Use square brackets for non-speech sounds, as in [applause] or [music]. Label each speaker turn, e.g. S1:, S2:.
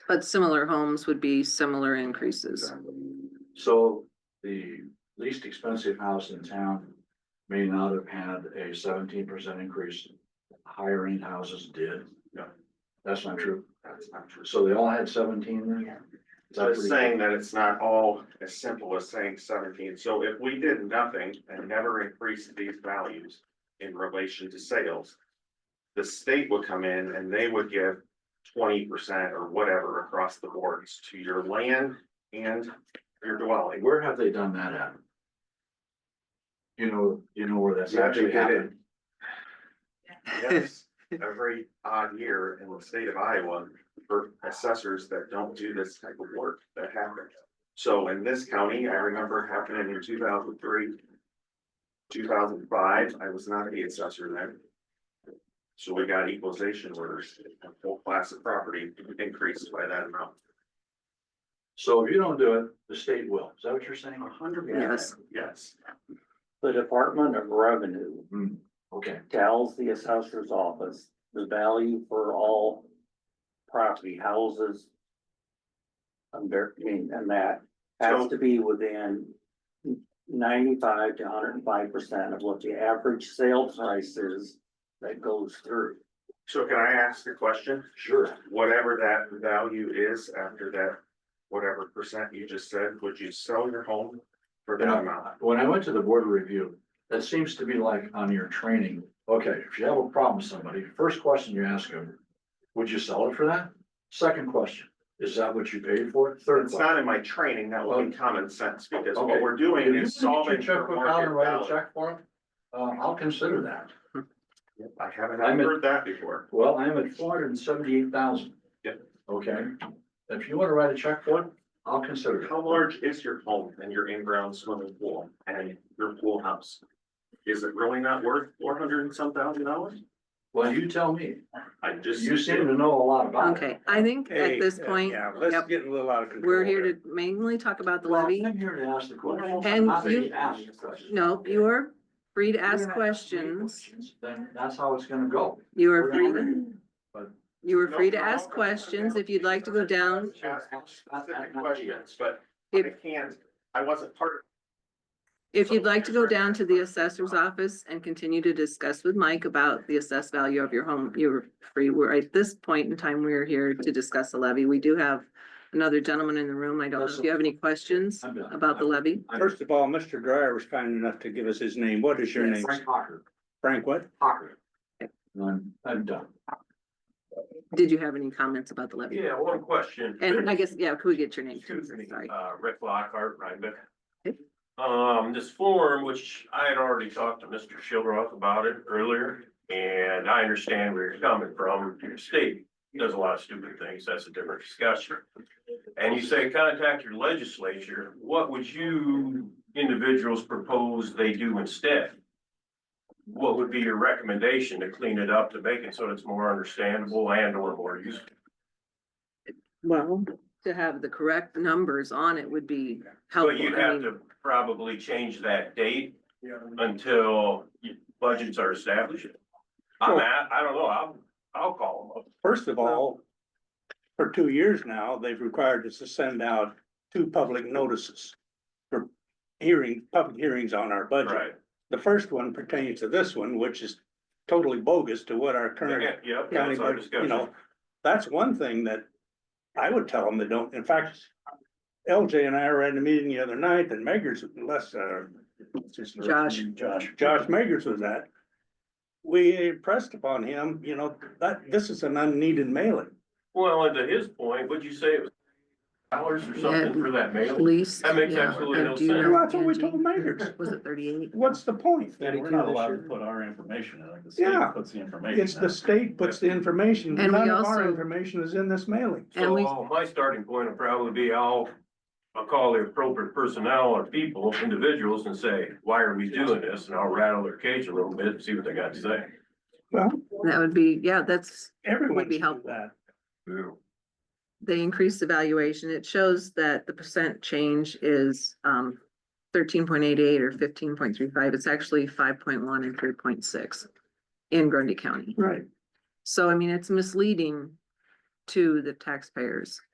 S1: But similar homes would be similar increases.
S2: So the least expensive house in town may not have had a seventeen percent increase. Higher end houses did.
S3: No.
S2: That's not true.
S3: That's not true.
S2: So they all had seventeen there? Is that
S3: So it's
S2: pretty-
S3: saying that it's not all as simple as saying seventeen, so if we did nothing and never increased these values in relation to sales. The state would come in and they would give twenty percent or whatever across the boards to your land and your dwelling.
S2: Where have they done that at? You know, you know where that's
S3: Yeah, they
S2: actually
S3: did it.
S1: [laughs]
S2: happened?
S3: Yes, every odd year in the state of Iowa for assessors that don't do this type of work that happens. So in this county, I remember happening in two thousand three. Two thousand five, I was not the assessor then. So we got equalization orders, a whole class of property increased by that amount.
S2: So if you don't do it, the state will. Is that what you're saying?
S3: hundred
S1: Yes.
S3: Yes,
S4: The Department of Revenue
S2: Hmm, okay.
S4: tells the assessor's office the value for all property houses. Under, I mean, and that has to be within ninety-five to hundred and five percent of what the average sale price is that goes through.
S3: so can I ask a question?
S2: Sure.
S3: whatever that value is after that, whatever percent you just said, would you sell your home for that amount?
S2: When I went to the board review, that seems to be like on your training. Okay, if you have a problem with somebody, first question you ask them, would you sell it for that? Second question, is that what you paid for it? Third
S3: It's
S2: question.
S3: not in my training, that would be common sense, because
S2: Oh. Okay.
S3: what we're
S2: If you
S3: doing
S2: can
S3: is
S2: get your
S3: solving for
S2: checkbook out and
S3: market
S2: write a
S3: value.
S2: check for them, uh, I'll consider that.
S3: I haven't
S2: I'm in-
S3: heard that before.
S2: Well, I'm at four hundred and seventy-eight thousand.
S3: Yep.
S2: Okay, if you wanna write a check for it, I'll consider it.
S3: How large is your home and your in-ground swimming pool and your pool house? Is it really not worth four hundred and some thousand dollars?
S2: Well, you tell me.
S3: I just.
S2: You seem to know a lot about it.
S1: Okay, I think at this point, yep,
S5: get a little out of
S1: we're here to mainly talk about the
S2: Well,
S1: levy.
S2: I'm here to ask the question.
S1: And
S2: Not that
S1: you-
S2: ask the question.
S1: No, you are free to ask
S2: We're gonna
S1: questions.
S2: Then that's how it's gonna go.
S1: You
S2: We're
S1: are free,
S2: gonna-
S1: to- you are free to ask questions if you'd like to go down.
S3: Ask specific questions, but I
S1: If,
S3: can't, I wasn't part of
S1: if you'd like to go down to the assessor's office and continue to discuss with Mike about the assessed value of your home, you're free. We're at this point in time, we're here to discuss the levy. We do have another gentleman in the room. I don't know if you have any questions
S2: I'm done.
S1: about the levy.
S2: I'm-
S5: First of all, Mr. Dryer was kind enough to give us his name. What is your
S1: Yes.
S5: name?
S2: Frank Hocker,
S5: Frank what?
S2: Hocker. And I'm, I'm done.
S1: Did you have any comments about the levy?
S6: Yeah, one question.
S1: And I guess, yeah, could we get your name? too?
S6: Excuse me,
S1: Sorry.
S6: uh, Rick Lockhart, Rhinebeck.
S1: Okay.
S6: Um, this form, which I had already talked to Mr. Shildroth about it earlier, and I understand where you're coming from. Your state does a lot of stupid things. That's a different discussion. And you say contact your legislature. What would you individuals propose they do instead? What would be your recommendation to clean it up, to make it so it's more understandable and or more useful?
S1: Well, to have the correct numbers on it would be helpful.
S6: But you'd
S1: I mean,
S6: have to probably change that date until y- budgets are established. I'm at, I don't know, I'll, I'll call them up.
S5: First of all, for two years now, they've required us to send out two public notices for hearing, public hearings on our budget.
S6: Right,
S5: The first one pertains to this one, which is totally bogus to what our current
S6: yeah, yep,
S5: county,
S6: that's our
S5: budget- you know,
S6: discussion.
S5: that's one thing that I would tell them that don't, in fact, LJ and I were at a meeting the other night that Megger's, less, uh, what's his first
S1: Josh.
S5: name? Josh, Josh Megger's was at. We impressed upon him, you know, that, this is an unneeded mailing.
S6: Well, and to his point, would you say it was dollars or something for that
S1: At
S6: mail?
S1: least.
S6: That makes
S1: yeah,
S6: absolutely
S1: I
S6: no
S1: do know
S6: sense.
S5: Well, that's what we
S1: Angie.
S5: told Megger's.
S1: Was it thirty-eight?
S5: What's the point?
S7: That we're not allowed to put our information in, like the
S5: Yeah.
S7: state puts the information.
S5: It's the
S7: in.
S5: state puts the information,
S1: And
S5: none
S1: we
S5: of our
S1: also-
S5: information is in this mailing.
S1: And we-
S6: So my starting point would probably be I'll, I'll call the appropriate personnel or people, individuals and say, why are we doing this? And I'll rattle their cage a little bit and see what they got to say.
S5: Well,
S1: That would be, yeah, that's,
S5: everyone
S1: Would be
S5: should do
S1: helpful.
S5: that.
S1: they increased the valuation. It shows that the percent change is um thirteen point eight eight or fifteen point three five. It's actually five point one and three point six in Grundy County.
S5: Right.
S1: So I mean, it's misleading to the taxpayers.